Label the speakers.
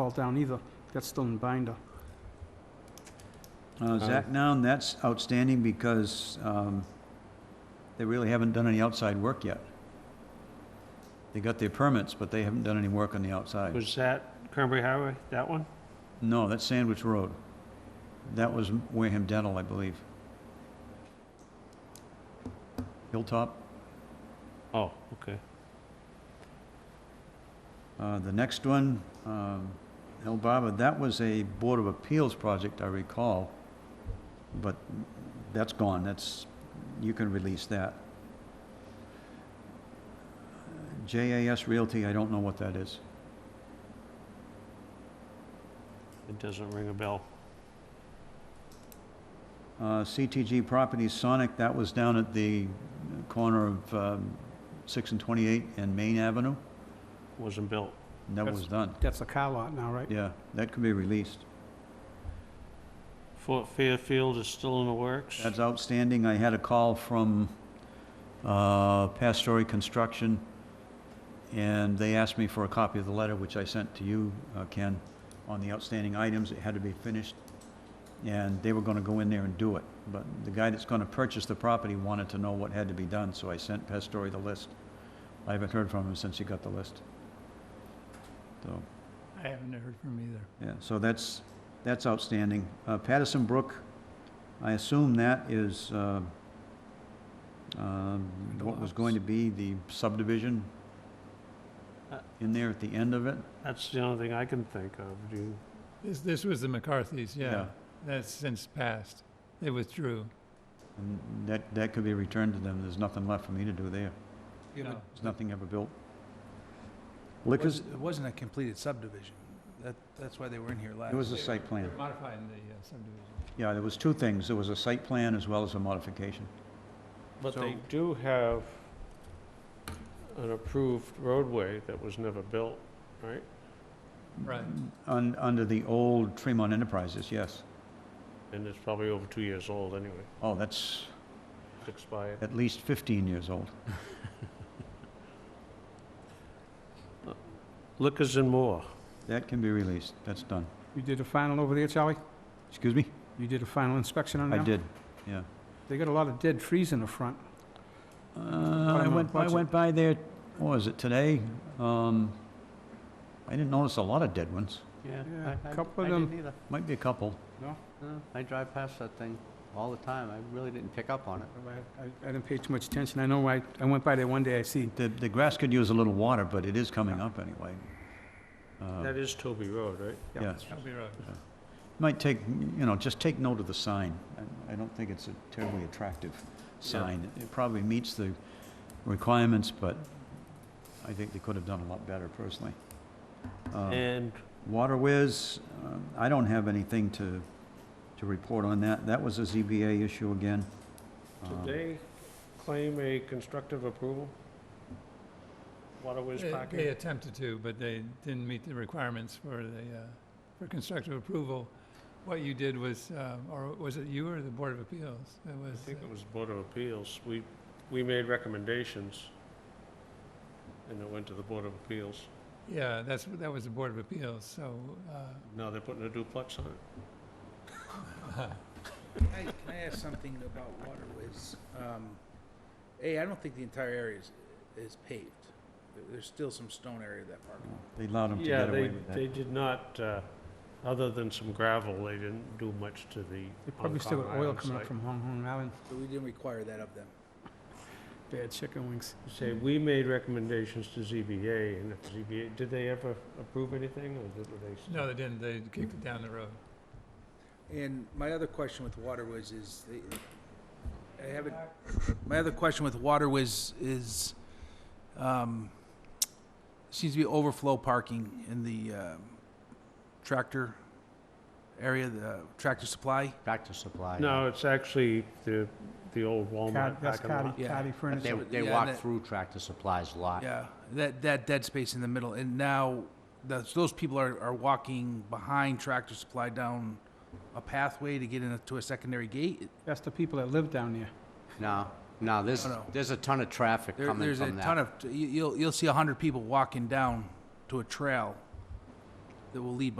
Speaker 1: fall down either. That's still in binder.
Speaker 2: Uh, Zach Noun, that's outstanding because um, they really haven't done any outside work yet. They got their permits, but they haven't done any work on the outside.
Speaker 3: Was that Cranberry Highway, that one?
Speaker 2: No, that's Sandwich Road. That was Wareham Dental, I believe. Hilltop.
Speaker 3: Oh, okay.
Speaker 2: Uh, The next one, um, El Baba, that was a Board of Appeals project, I recall, but that's gone, that's, you can release that. JAS Realty, I don't know what that is.
Speaker 3: It doesn't ring a bell.
Speaker 2: Uh, CTG Properties Sonic, that was down at the corner of um, 6 and 28 and Main Avenue,
Speaker 3: Wasn't built.
Speaker 2: and that was done.
Speaker 1: That's a car lot now, right?
Speaker 2: Yeah, that could be released.
Speaker 3: Fort Fairfield is still in the works.
Speaker 2: That's outstanding. I had a call from uh, Pastore Construction, and they asked me for a copy of the letter, which I sent to you, uh, Ken, on the outstanding items. It had to be finished, and they were going to go in there and do it. But the guy that's going to purchase the property wanted to know what had to be done, so I sent Pastore the list. I haven't heard from him since he got the list. So,
Speaker 4: I haven't heard from either.
Speaker 2: yeah, so that's, that's outstanding. Uh, Patterson Brook, I assume that is, uh, um, what was going to be the subdivision
Speaker 4: Uh,
Speaker 2: in there at the end of it?
Speaker 3: That's the only thing I can think of. Do you,
Speaker 4: This, this was the McCarthys, yeah. That's since passed. They withdrew.
Speaker 2: And that, that could be returned to them. There's nothing left for me to do there.
Speaker 4: No.
Speaker 2: There's nothing ever built. Liquors,
Speaker 5: It wasn't a completed subdivision. That, that's why they were in here last.
Speaker 2: it was a site plan.
Speaker 4: They're modifying the uh, subdivision.
Speaker 2: Yeah, there was two things. There was a site plan as well as a modification.
Speaker 3: but
Speaker 5: So-
Speaker 3: they do have an approved roadway that was never built, right?
Speaker 4: Right.
Speaker 2: Un, under the old Tremont Enterprises, yes.
Speaker 3: And it's probably over two years old anyway.
Speaker 2: Oh, that's
Speaker 3: It's expired.
Speaker 2: at least 15 years old.
Speaker 3: Liquors and more.
Speaker 2: That can be released, that's done.
Speaker 1: You did a final over there, Charlie?
Speaker 2: Excuse me?
Speaker 1: You did a final inspection on
Speaker 2: I
Speaker 1: that?
Speaker 2: did, yeah.
Speaker 1: They got a lot of dead trees in the front.
Speaker 2: Uh, I went, I went by there, what was it, today? Um, I didn't notice a lot of dead ones,
Speaker 6: Yeah,
Speaker 1: Yeah,
Speaker 6: I- I-
Speaker 1: couple
Speaker 6: I
Speaker 1: of them-
Speaker 6: didn't either.
Speaker 2: might be a couple.
Speaker 6: No, I drive past that thing all the time. I really didn't pick up on it.
Speaker 1: I- I didn't pay too much attention. I know I, I went by there one day, I see,
Speaker 2: The, the grass could use a little water, but it is coming up anyway. Uh,
Speaker 3: That is Toby Road, right?
Speaker 2: Yeah,
Speaker 4: Shelby Road.
Speaker 2: might take, you know, just take note of the sign. I- I don't think it's a terribly attractive sign. It probably meets the requirements, but I think they could have done a lot better personally. Um,
Speaker 3: And
Speaker 2: Water Whiz, um, I don't have anything to, to report on that. That was a ZBA issue again. Um,
Speaker 3: did they claim a constructive approval? Waterways
Speaker 4: They,
Speaker 3: Parking?
Speaker 4: they attempted to, but they didn't meet the requirements for the, uh, for constructive approval. What you did was, um, or was it you or the Board of Appeals? It
Speaker 3: I
Speaker 4: was, uh,
Speaker 3: think it was Board of Appeals. We, we made recommendations, and it went to the Board of Appeals.
Speaker 4: yeah, that's, that was the Board of Appeals, so, uh,
Speaker 3: Now they're putting a duplex on it.
Speaker 5: Can I can I ask something about waterways? Um, A, I don't think the entire area is, is paved. There- There's still some stone area of that park.
Speaker 2: Um, They allowed them to
Speaker 3: Yeah,
Speaker 2: get away
Speaker 3: they,
Speaker 2: with
Speaker 3: they
Speaker 2: that.
Speaker 3: did not, uh, other than some gravel, they didn't do much to the
Speaker 1: they probably still
Speaker 3: Hong
Speaker 1: got
Speaker 3: Kong
Speaker 1: oil
Speaker 3: Oh, Island
Speaker 1: coming up
Speaker 3: site.
Speaker 1: from Hong Kong Island.
Speaker 5: So we didn't require that of them.
Speaker 1: Bad chicken wings.
Speaker 3: Say, we made recommendations to ZBA, and if ZBA, did they ever approve anything, or did were they?
Speaker 4: no, they didn't. They kicked it down the road.
Speaker 5: And my other question with waterways is, they- I haven't, my other question with waterways is, um, seems to be overflow parking in the um, tractor area, the tractor supply.
Speaker 6: Back to supply.
Speaker 3: No, it's actually the, the old
Speaker 1: Card-
Speaker 3: Walmart
Speaker 1: That's
Speaker 3: parking lot.
Speaker 1: Cardi,
Speaker 5: Yeah.
Speaker 1: Cardi
Speaker 6: They,
Speaker 1: Furniture.
Speaker 6: they
Speaker 5: Yeah,
Speaker 6: walk
Speaker 5: that-
Speaker 6: through Tractor Supply's lot.
Speaker 5: Yeah, that, that dead space in the middle, and now, those, those people are, are walking behind Tractor Supply down a pathway to get into a secondary gate.
Speaker 1: That's the people that live down there.
Speaker 6: No, no, there's,
Speaker 5: No, no.
Speaker 6: there's a ton of traffic
Speaker 5: There,
Speaker 6: coming
Speaker 5: there's a
Speaker 6: from
Speaker 5: ton
Speaker 6: that.
Speaker 5: of, you, you'll, you'll see a hundred people walking down to a trail that will lead behind